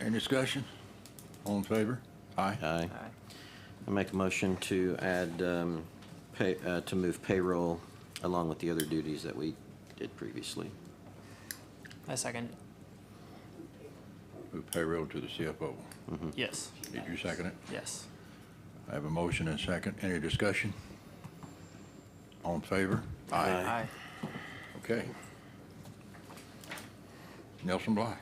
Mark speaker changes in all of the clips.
Speaker 1: Any discussion? All in favor? Aye.
Speaker 2: Aye.
Speaker 3: Aye.
Speaker 2: I make a motion to add, um, pay, uh, to move payroll along with the other duties that we did previously.
Speaker 3: I second.
Speaker 1: Move payroll to the CFO.
Speaker 3: Yes.
Speaker 1: Did you second it?
Speaker 3: Yes.
Speaker 1: I have a motion and second. Any discussion? All in favor?
Speaker 2: Aye.
Speaker 3: Aye.
Speaker 1: Okay. Nelson Bly.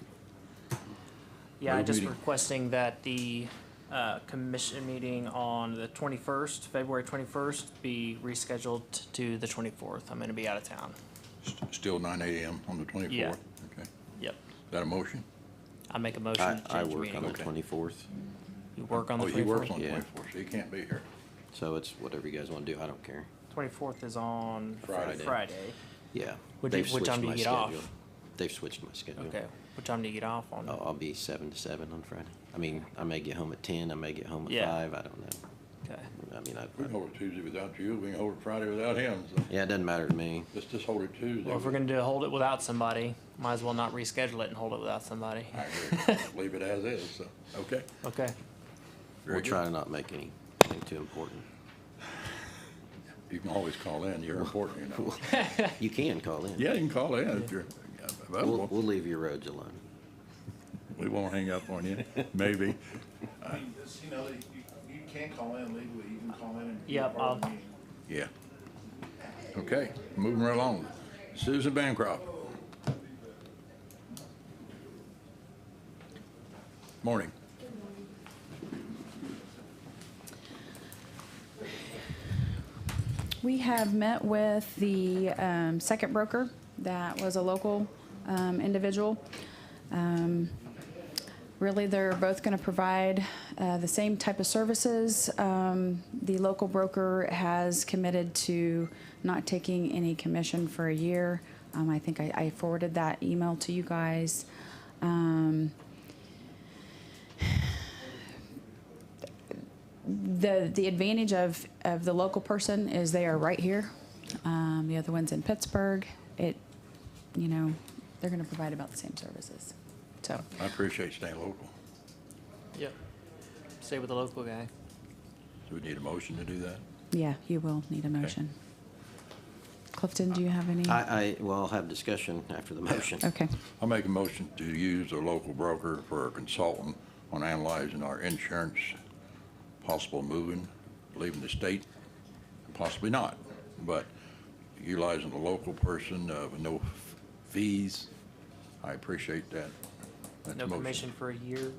Speaker 3: Yeah, I
Speaker 1: Move
Speaker 3: just
Speaker 1: meeting.
Speaker 3: requesting that the uh, commission meeting on the 21st, February 21st, be rescheduled to the 24th. I'm going to be out of town.
Speaker 1: St- Still nine AM on the twenty-fourth?
Speaker 3: Yeah.
Speaker 1: Okay. Is
Speaker 3: Yep.
Speaker 1: that a motion?
Speaker 3: I make a motion
Speaker 2: I,
Speaker 3: to
Speaker 2: I
Speaker 3: change the
Speaker 2: work on the
Speaker 3: meeting.
Speaker 1: Okay.
Speaker 2: twenty-fourth,
Speaker 3: You work on the
Speaker 1: Oh, he works
Speaker 3: 24th?
Speaker 1: on the
Speaker 2: Yeah.
Speaker 1: twenty-fourth, so he can't be here.
Speaker 2: so it's whatever you guys wanna do, I don't care.
Speaker 3: 24th is on
Speaker 1: Friday.
Speaker 3: Friday.
Speaker 2: Yeah.
Speaker 3: What do you-
Speaker 2: they've
Speaker 3: what time
Speaker 2: switched
Speaker 3: do you
Speaker 2: my
Speaker 3: get off?
Speaker 2: schedule. They've switched my schedule.
Speaker 3: Okay. What time do you get off on?
Speaker 2: I'll, I'll be seven to seven on Friday. I mean, I may get home at ten, I may get home at
Speaker 3: Yeah.
Speaker 2: five, I don't know.
Speaker 3: Okay.
Speaker 2: I mean,
Speaker 1: We can
Speaker 2: I,
Speaker 1: hold it Tuesday without you, we can hold it Friday without him, so
Speaker 2: yeah, it doesn't matter to me.
Speaker 1: let's just hold it Tuesday.
Speaker 3: Well, if we're going to do hold it without somebody, might as well not reschedule it and hold it without somebody.
Speaker 1: I agree. Leave it as is, so, okay.
Speaker 3: Okay.
Speaker 1: Very
Speaker 2: We'll
Speaker 1: good.
Speaker 2: try to not make anything too important.
Speaker 1: You can always call in, you're important, you know.
Speaker 2: You can call in.
Speaker 1: Yeah, you can call in if you're
Speaker 2: We'll,
Speaker 1: available.
Speaker 2: we'll leave your roads alone.
Speaker 1: We won't hang up on you, maybe.
Speaker 4: I mean, it's, you know, you, you can call in legally, you can call in and. be
Speaker 3: Yep,
Speaker 4: part of the
Speaker 3: I'll-
Speaker 4: meeting.
Speaker 1: Yeah. Okay, moving right along. Susan Bancroft. Morning.
Speaker 5: We have met with the um, second broker that was a local um, individual. Um, Really, they're both going to provide uh, the same type of services. Um, The local broker has committed to not taking any commission for a year. Um, I think I I forwarded that email to you guys. Um, the the advantage of of the local person is they are right here. Um, the other one's in Pittsburgh. It, you know, they're going to provide about the same services. So
Speaker 1: I appreciate staying local.
Speaker 3: Yep. Stay with the local guy.
Speaker 1: Do we need a motion to do that?
Speaker 5: yeah, you will need a motion. Clifton, do you have any?
Speaker 2: I, I, well, I'll have discussion after the motion.
Speaker 5: okay.
Speaker 1: I'll make a motion to use a local broker for a consultant on analyzing our insurance, possible moving, leaving the state, and possibly not. But utilizing a local person uh, with no fees, I appreciate that. That's
Speaker 3: No
Speaker 1: a motion.
Speaker 3: commission for a year.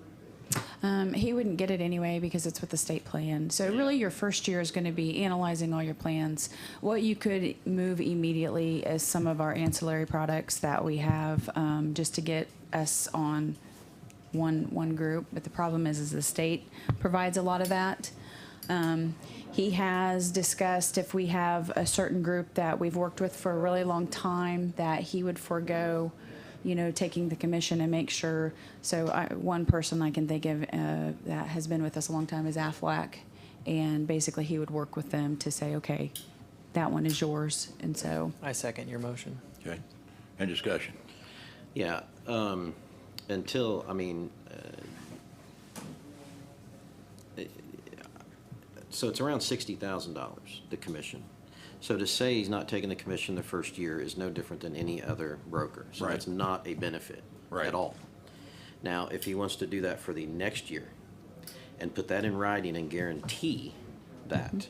Speaker 5: Um, he wouldn't get it anyway because it's with the state plan. So really, your first year is going to be analyzing all your plans. What you could move immediately is some of our ancillary products that we have, um, just to get us on one one group. But the problem is, is the state provides a lot of that. Um, he has discussed if we have a certain group that we've worked with for a really long time that he would forego, you know, taking the commission and make sure. So I, one person I can think of uh, that has been with us a long time is Aflac, and basically he would work with them to say, okay, that one is yours, and so
Speaker 3: I second your motion.
Speaker 1: Okay, and discussion.
Speaker 2: Yeah, um, until, I mean, uh, so it's around sixty thousand dollars, the commission. So to say he's not taking the commission the first year is no different than any other broker. So
Speaker 1: Right.
Speaker 2: that's not a benefit
Speaker 1: Right.
Speaker 2: at all. Now, if he wants to do that for the next year and put that in writing and guarantee that,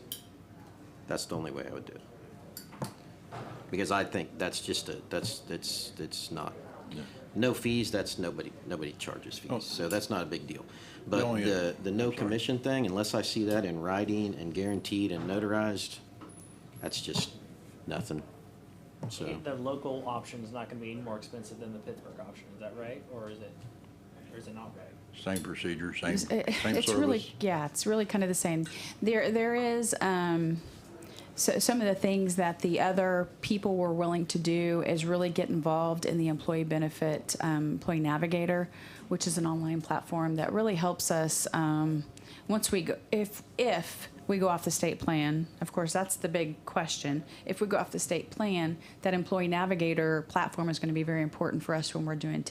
Speaker 2: that's the only way I would do it. Because I think that's just a, that's, it's, it's not, no fees, that's nobody, nobody charges
Speaker 1: Oh.
Speaker 2: fees, so that's not a big deal. But
Speaker 1: only-
Speaker 2: the, the no commission thing, unless I see that in writing and guaranteed and notarized, that's just nothing, so.
Speaker 3: The local option is not gonna be any more expensive than the Pittsburgh option, is that right? Or is it, or is it not right?
Speaker 1: Same procedure, same,
Speaker 5: It's- it-
Speaker 1: same
Speaker 5: it's really
Speaker 1: service.
Speaker 5: yeah it's really kind of the same there there is um so some of the things that the other people were willing to do is really get involved in the employee benefit um, employee navigator which is an online platform that really helps us um, once we go if if we go off the state plan of course that's the big question if we go off the state plan that employee navigator platform is going to be very important for us when we're doing